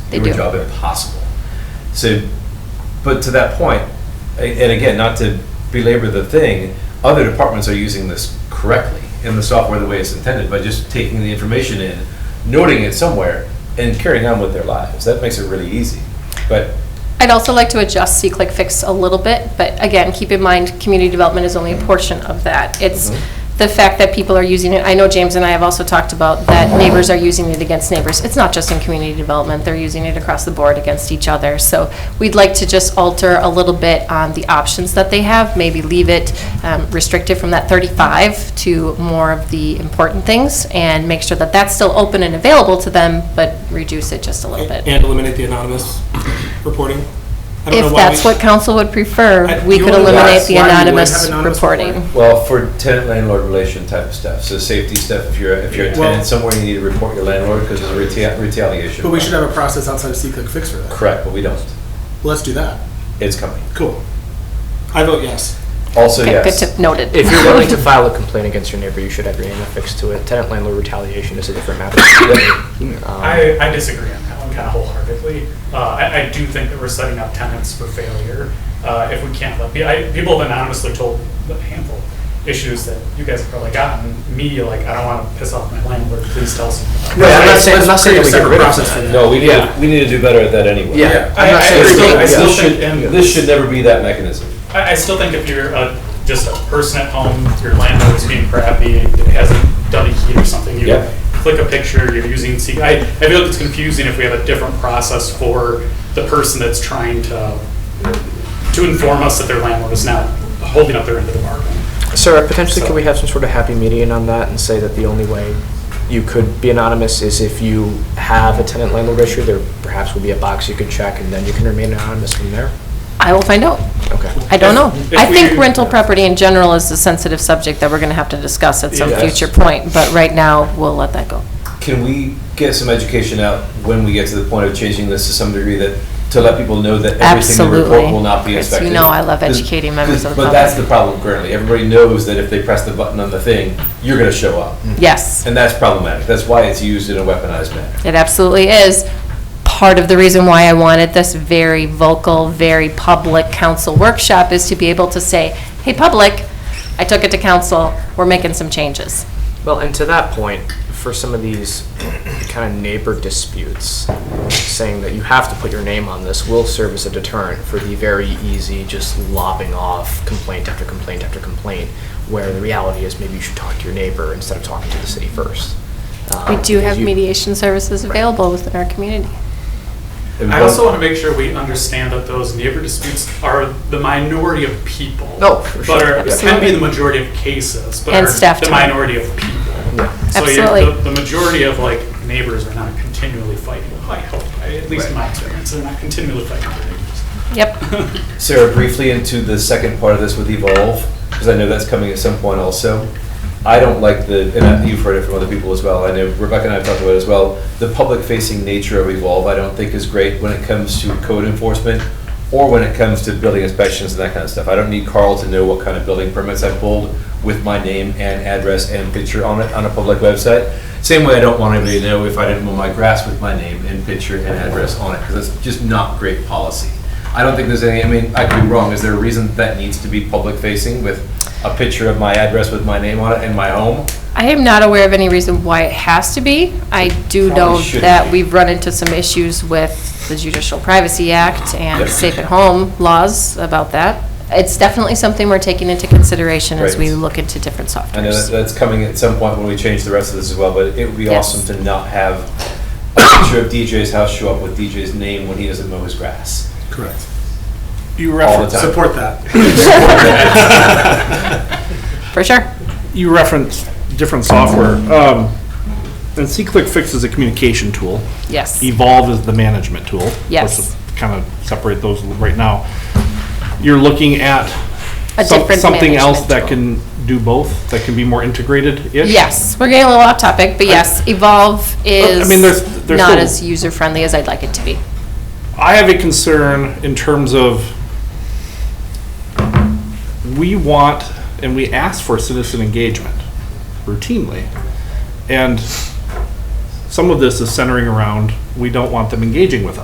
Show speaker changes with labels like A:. A: They
B: do a
A: do.
B: job impossible. So, but to that point, a- and again, not to belabor the thing, other departments are using this correctly in the software the way it's intended by just taking the information in, noting it somewhere, and carrying on with their lives. That makes it really easy. But
A: I'd also like to adjust See Click Fix a little bit, but again, keep in mind, community development is only a portion of that. It's
B: Mhm.
A: the fact that people are using it, I know James and I have also talked about that neighbors are using it against neighbors. It's not just in community development, they're using it across the board against each other. So we'd like to just alter a little bit on the options that they have, maybe leave it um, restricted from that 35 to more of the important things, and make sure that that's still open and available to them, but reduce it just a little bit.
C: And eliminate the anonymous reporting. I don't know
A: If
C: why
A: that's
C: we-
A: what council would prefer,
C: I-
A: we
C: you
A: could
C: wanna
A: eliminate
C: ask
A: the
C: why we would have
A: anonymous
C: anonymous
A: reporting.
C: reporting?
B: Well, for tenant landlord relation type of stuff, so safety stuff, if you're, if you're a
C: Well-
B: tenant somewhere, you need to report your landlord because there's a reta- retaliation.
C: But we should have a process outside of C-Click Fix for that.
B: Correct, but we don't.
C: Let's do that.
B: It's coming.
C: Cool. I vote yes.
B: Also,
A: Okay, Good
B: yes.
A: tip, noted.
D: If you're willing to file a complaint against your neighbor, you should have your name affixed to it. Tenant landlord retaliation is a different matter. Um,
E: I, I disagree on that one kind of wholeheartedly. Uh, I, I do think that we're setting up tenants for failure uh, if we can't let, I, people have anonymously told a handful of issues that you guys have probably gotten. Me, like, I don't want to piss off my landlord, please tell someone.
D: Right, I'm not
C: Let's-
D: saying- I'm
C: let's
D: not
C: create
D: saying
C: a
D: we get
C: separate
D: rid of
C: process
D: that.
C: for that.
B: No, we need,
E: Yeah.
B: we need to do better at that anyway.
D: Yeah, I'm
E: I-
D: not
E: I
D: saying. it's
E: still- I
D: good.
E: still
B: This
E: think-
B: should, this should never be that mechanism.
E: I, I still think if you're a, just a person at home, your landlord is being crappy, it hasn't done a heat or something, you
B: Yeah.
E: click a picture, you're using C. I, I feel like it's confusing if we have a different process for the person that's trying to, to inform us that their landlord is not holding up their end of the bargain.
D: Sarah, potentially could we have some sort of happy median on that and say that the only way you could be anonymous is if you have a tenant landlord issue, there perhaps will be a box you could check and then you can remain anonymous from there?
A: I will find out.
D: Okay.
A: I don't know.
E: If- if
A: I think
E: we-
A: rental property in general is a sensitive subject that we're going to have to discuss at some
E: Yes.
A: future point, but right now, we'll let that go.
B: Can we get some education out when we get to the point of changing this to some degree that, to let people know that everything they
A: Absolutely.
B: report will not be
A: Chris, you
B: inspected?
A: know I love
B: 'Cause-
A: educating members of the
B: But that's the
A: public.
B: problem currently. Everybody knows that if they press the button on the thing, you're gonna show up.
A: Mm. Yes,
B: And that's problematic. That's why it's used in a weaponized manner.
A: it absolutely is. Part of the reason why I wanted this very vocal, very public council workshop is to be able to say, hey, public, I took it to council, we're making some changes.
D: Well, and to that point, for some of these kind of neighbor disputes, saying that you have to put your name on this will serve as a deterrent for the very easy, just lobbing off complaint after complaint after complaint, where the reality is maybe you should talk to your neighbor instead of talking to the city first.
A: We
D: Um,
A: do have
D: you-
A: mediation services available within our community.
B: And
E: I
B: one-
E: also want to make sure we understand that those neighbor disputes are the minority of people.
D: No, for
E: But
D: sure.
E: are, can be the majority of cases, but
A: And
E: are
A: staff
E: the
A: time.
E: minority of people.
D: Yeah.
E: So you-
A: Absolutely.
E: the- The majority of like neighbors are not continually fighting, I hope, I- at least in my experience, they're not continually fighting their neighbors.
A: Yep.
B: Sarah, briefly into the second part of this with Evolve, because I know that's coming at some point also. I don't like the, and I- you've heard it from other people as well, I know Rebecca and I have talked about it as well, the public-facing nature of Evolve, I don't think is great when it comes to code enforcement or when it comes to building inspections and that kind of stuff. I don't need Carl to know what kind of building permits I pulled with my name and address and picture on it, on a public website. Same way I don't want anybody to know if I didn't mow my grass with my name and picture and address on it, because that's just not great policy. I don't think there's any, I mean, I could be wrong, is there a reason that needs to be public facing with a picture of my address with my name on it and my home?
A: I am not aware of any reason why it has to be. I do
B: Probably
A: know
B: shouldn't
A: that
B: be.
A: we've run into some issues with the Judicial Privacy Act and
B: Yep.
A: Safe at Home laws about that. It's definitely something we're taking into consideration as we
B: Right.
A: look into different
B: I know that-
A: softwares.
B: that's coming at some point when we change the rest of this as well, but it would be
A: Yes.
B: awesome to not have a picture of DJ's house show up with DJ's name when he doesn't mow his grass.
C: Correct. You
B: the
C: reference,
B: time.
C: support that.
F: uh,
A: For sure.
F: you reference different software. Um, and C-Click Fix is a communication tool.
A: Yes.
F: Evolve is the management tool.
A: Yes.
F: Kind of separate those right now. You're looking at
A: A
F: some-
A: different
F: something else
A: management
F: that
A: tool.
F: can do both, that can be more integrated-ish?
A: Yes, we're getting a little off topic, but yes, Evolve is
F: mean, there's- there's
A: not
F: still-
A: as user-friendly as I'd like it to be.
F: I have a concern in terms of we want and we ask for citizen engagement routinely. And some of this is centering around we don't want them engaging with us.